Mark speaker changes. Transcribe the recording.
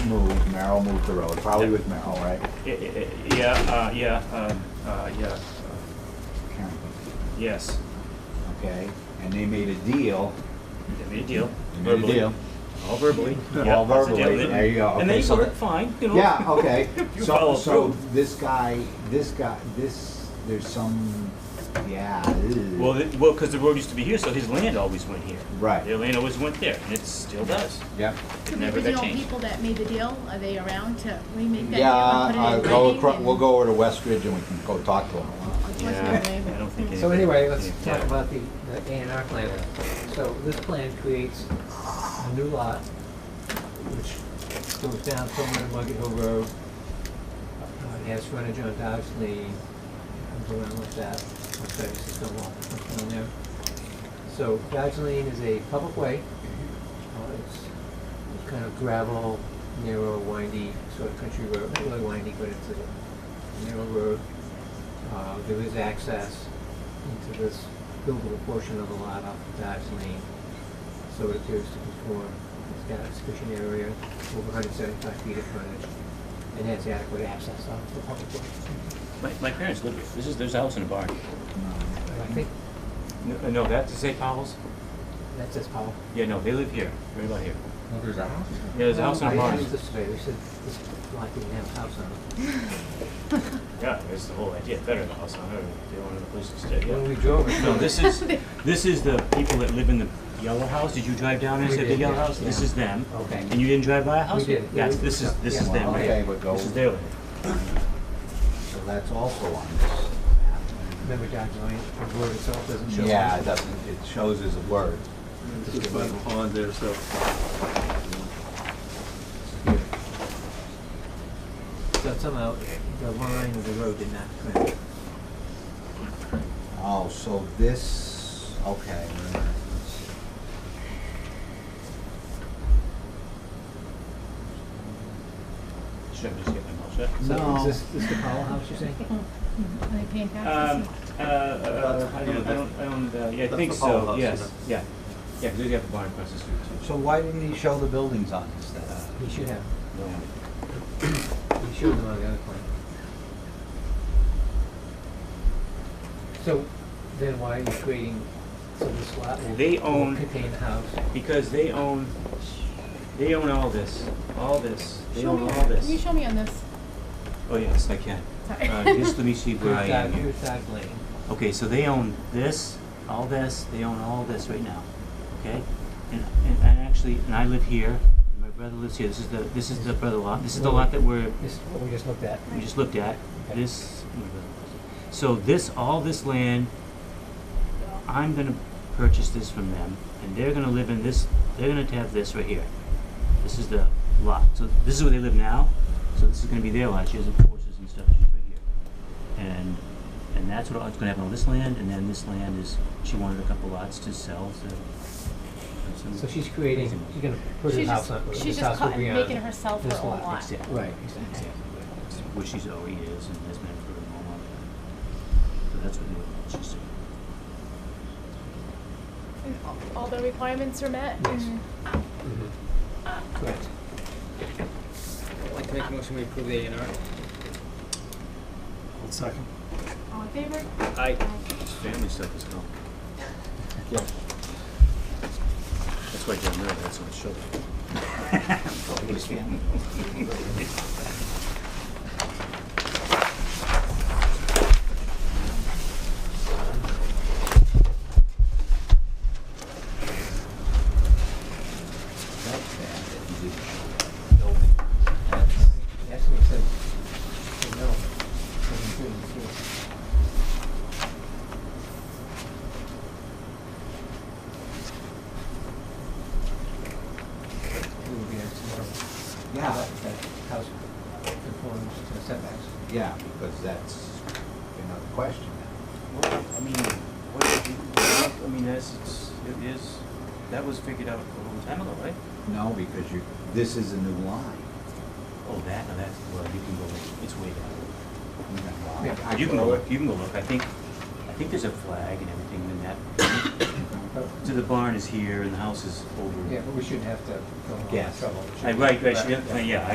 Speaker 1: moved, Merrill moved the road, probably with Merrill, right?
Speaker 2: I- I- I- Yeah, uh, yeah, um, uh, yeah, uh,
Speaker 1: Karen,
Speaker 2: yes,
Speaker 1: Okay, and they made a deal.
Speaker 2: they made a deal.
Speaker 1: They made a
Speaker 2: verbally.
Speaker 1: deal.
Speaker 2: All verbally.
Speaker 1: All
Speaker 2: Yeah, that's a deal.
Speaker 1: verbally, there you go.
Speaker 2: And
Speaker 1: Okay,
Speaker 2: they
Speaker 1: so
Speaker 2: worked
Speaker 1: that-
Speaker 2: fine, you know.
Speaker 1: Yeah, okay.
Speaker 2: You
Speaker 1: So,
Speaker 2: follow
Speaker 1: so
Speaker 2: through.
Speaker 1: this guy, this guy, this, there's some, yeah. ew.
Speaker 2: Well, it- well, because the road used to be here, so his land always went here.
Speaker 1: Right.
Speaker 2: Their land always went there, and it still does.
Speaker 1: Yep.
Speaker 2: It
Speaker 3: The
Speaker 2: never got
Speaker 3: original
Speaker 2: changed.
Speaker 3: people that made the deal, are they around to remake that deal
Speaker 1: Yeah,
Speaker 3: and put it
Speaker 1: uh,
Speaker 3: in
Speaker 1: go
Speaker 3: writing
Speaker 1: across,
Speaker 3: and-
Speaker 1: we'll go over to West Ridge and we can go talk to him.
Speaker 3: What's their name?
Speaker 2: I don't think anybody.
Speaker 4: So anyway, let's
Speaker 2: yeah.
Speaker 4: talk about the A and R plan. So this plan creates a new lot, which goes down somewhere to Muggy Hill Road. Uh, It has frontage on Dodge Lane, comes around like that, looks like it's just a lot, something on there. So Dodge Lane is a public way. Uh, It's kind of gravel, narrow, windy, sort of country road, not really windy, but it's a narrow road. Uh, There is access into this buildable portion of the lot off of Dodge Lane, so it appears to conform. It's got a sufficient area, over 175 feet of frontage, and has adequate access off the public way.
Speaker 2: My, my parents live here. This is, there's a house in a barn.
Speaker 4: And I think
Speaker 2: No, uh, no, that's St. Paul's?
Speaker 4: that says Powell.
Speaker 2: Yeah, no, they live here, right about here.
Speaker 5: There's a house.
Speaker 2: Yeah, there's
Speaker 1: Oh,
Speaker 2: a house in a
Speaker 4: I
Speaker 2: barn.
Speaker 4: asked this today, they said this lot didn't have a house on it.
Speaker 2: Yeah, that's the whole idea, better than a house on it, they wanted the place to stay,
Speaker 4: When we
Speaker 2: yeah.
Speaker 4: drove it.
Speaker 2: No, this is, this is the people that live in the yellow house, did you drive down and
Speaker 4: We
Speaker 2: see the
Speaker 4: did,
Speaker 2: yellow
Speaker 4: yeah,
Speaker 2: house? This
Speaker 4: yeah.
Speaker 2: is them.
Speaker 4: Okay.
Speaker 2: And you didn't drive by a house?
Speaker 4: We did, yeah,
Speaker 2: That's,
Speaker 4: we-
Speaker 2: this is, this is
Speaker 4: yeah,
Speaker 2: them, right?
Speaker 1: okay, but go-
Speaker 2: This is their land.
Speaker 1: So that's also on
Speaker 4: Remember Dodge Lane, the road itself doesn't
Speaker 1: this.
Speaker 4: show.
Speaker 1: Yeah, it doesn't, it shows as a word.
Speaker 5: It's just by the pond there, so.
Speaker 4: So somehow, the line of the road did not connect.
Speaker 1: Oh, so this, okay. wait a minute, let's see.
Speaker 2: Should I just get my mouth shut?
Speaker 4: So
Speaker 1: No.
Speaker 4: is this, this the Powell house you're saying?
Speaker 3: Hmm, Are they paying
Speaker 2: Um,
Speaker 3: taxes?
Speaker 2: uh, uh, I don't, I don't, I don't, uh, yeah, I
Speaker 5: That's
Speaker 2: think
Speaker 5: the Powell
Speaker 2: so,
Speaker 5: house,
Speaker 2: yes, yeah. Yeah, because they have the barn across the street too.
Speaker 1: So why didn't he show the buildings on this then?
Speaker 4: He should have,
Speaker 2: No.
Speaker 4: he should have on the other plan. So then why are you creating, so this lot will
Speaker 2: They
Speaker 4: will
Speaker 2: own-
Speaker 4: contain the house?
Speaker 2: Because they own, they own all this, all this, they
Speaker 3: Show
Speaker 2: own
Speaker 3: me,
Speaker 2: all
Speaker 3: can you
Speaker 2: this.
Speaker 3: show me on this?
Speaker 2: Oh, yes, I can.
Speaker 3: Sorry.
Speaker 2: Uh, just let me see where I am here.
Speaker 4: Here's Dodge Lane,
Speaker 2: Okay, so they own this, all this, they own all this right now, okay? And, and, and actually, and I live here, and my brother lives here, this is the, this is the brother lot, this is the lot that we're,
Speaker 4: this is what we just looked at.
Speaker 2: we just looked at, this. So this, all this land, I'm gonna purchase this from them, and they're gonna live in this, they're gonna have this right here. This is the lot, so this is where they live now, so this is gonna be their lot, she has the horses and stuff, she's right here. And, and that's what, what's gonna happen on this land, and then this land is, she wanted a couple lots to sell, so. that's
Speaker 4: So she's creating, she's gonna put her
Speaker 3: She's
Speaker 4: house
Speaker 3: just,
Speaker 4: on,
Speaker 3: she's
Speaker 4: this
Speaker 3: just
Speaker 4: house
Speaker 3: cut-
Speaker 4: will be on.
Speaker 3: making herself her
Speaker 4: this
Speaker 3: own
Speaker 4: lot,
Speaker 3: lot.
Speaker 2: Exactly.
Speaker 4: Right, exactly.
Speaker 2: Which she's already is and has been for a long, long time. So that's what they she's doing.
Speaker 3: And all- All the requirements are met? Mm-hmm.
Speaker 4: Yes.
Speaker 3: and-
Speaker 4: Mhm. Correct.
Speaker 6: I'd like to make a motion to approve the A and R.
Speaker 5: One second.
Speaker 3: All in favor?
Speaker 6: Aye.
Speaker 2: Family stuff is gone. That's why John Murray had so much trouble. Probably his family.
Speaker 1: That's bad that he didn't show the building. That's,
Speaker 4: That's what it said, the middle, seventeen, yes. We will be there tomorrow.
Speaker 1: Yeah.
Speaker 4: That, that house conforms to setbacks.
Speaker 1: yeah, because that's another question
Speaker 2: Well, I mean, what, did you- what- I mean, that's, it's, it is, that was figured out a long time ago, right?
Speaker 1: now. No, because you, this is a new line.
Speaker 2: Oh, that, no, that's, well, you can go, look. it's way down.
Speaker 4: Yeah,
Speaker 1: I
Speaker 2: You can go
Speaker 1: go-
Speaker 2: look, you can go look, I think, I think there's a flag and everything in that.
Speaker 4: But,
Speaker 6: Oh.
Speaker 2: So the barn is here and the house is over.
Speaker 4: yeah, but we shouldn't have to go on
Speaker 1: Yes.
Speaker 4: trouble.
Speaker 2: I, right, right, she didn't, yeah,